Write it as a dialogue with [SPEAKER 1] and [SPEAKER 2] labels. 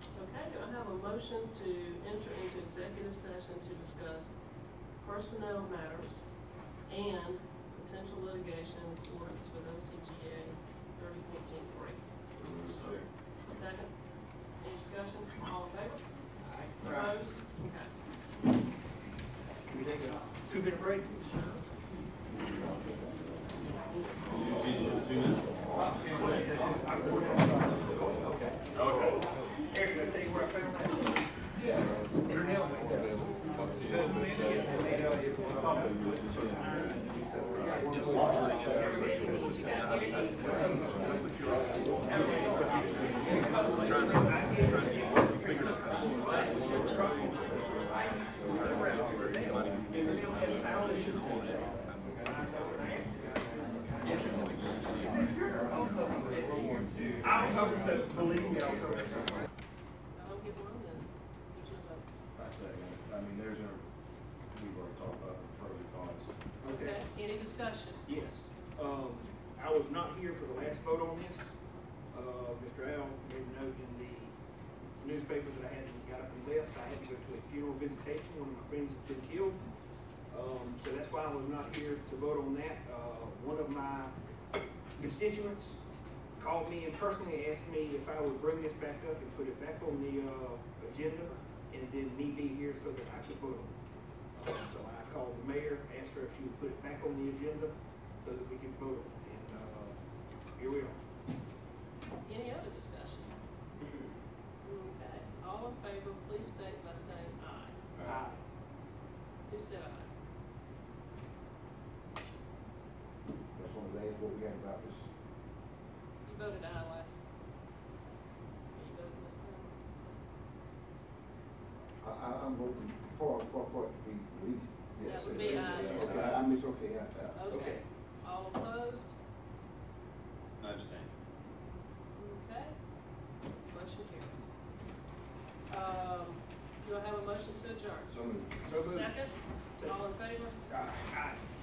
[SPEAKER 1] Okay, do I have a motion to enter into executive session to discuss personnel matters and potential litigation in accordance with OCGA thirty fourteen three? Second, any discussion, all in favor? Opposed? Okay.
[SPEAKER 2] Can we take a two-minute break? Okay. Eric, can I tell you where I found that? Yeah. Your nail went down. So, we need to get the meat out of here. I was hoping so, believe me, I was hoping so.
[SPEAKER 1] I don't get one then. Would you vote?
[SPEAKER 3] I say, I mean, there's a, we were talking about the pros and cons.
[SPEAKER 1] Okay, any discussion?
[SPEAKER 2] Yes. Um, I was not here for the last vote on this. Uh, Mr. Al made a note in the newspaper that I had got up and left. I had to go to a funeral visitation. One of my friends had been killed. Um, so that's why I was not here to vote on that. Uh, one of my constituents called me and personally asked me if I would bring this back up and put it back on the, uh, agenda and then me be here so that I could vote on it. Um, So I called the mayor, asked her if she would put it back on the agenda so that we could vote, and, uh, here we are.
[SPEAKER 1] Any other discussion? Okay, all in favor, please state by saying aye.
[SPEAKER 2] Aye.
[SPEAKER 1] Who said aye?
[SPEAKER 4] That's one of the last what we had about this.
[SPEAKER 1] You voted aye last time. You voted this time?
[SPEAKER 4] I, I, I'm voting for, for, for it to be released.
[SPEAKER 1] That would be aye.
[SPEAKER 4] Okay, I, I miss, okay, I, I.
[SPEAKER 1] Okay.
[SPEAKER 2] Okay.
[SPEAKER 1] All opposed?
[SPEAKER 5] I understand.
[SPEAKER 1] Okay. Motion carries. Um, do I have a motion to adjourn?
[SPEAKER 4] So moved.
[SPEAKER 2] So moved.
[SPEAKER 1] Second? All in favor?
[SPEAKER 2] Aye. Aye.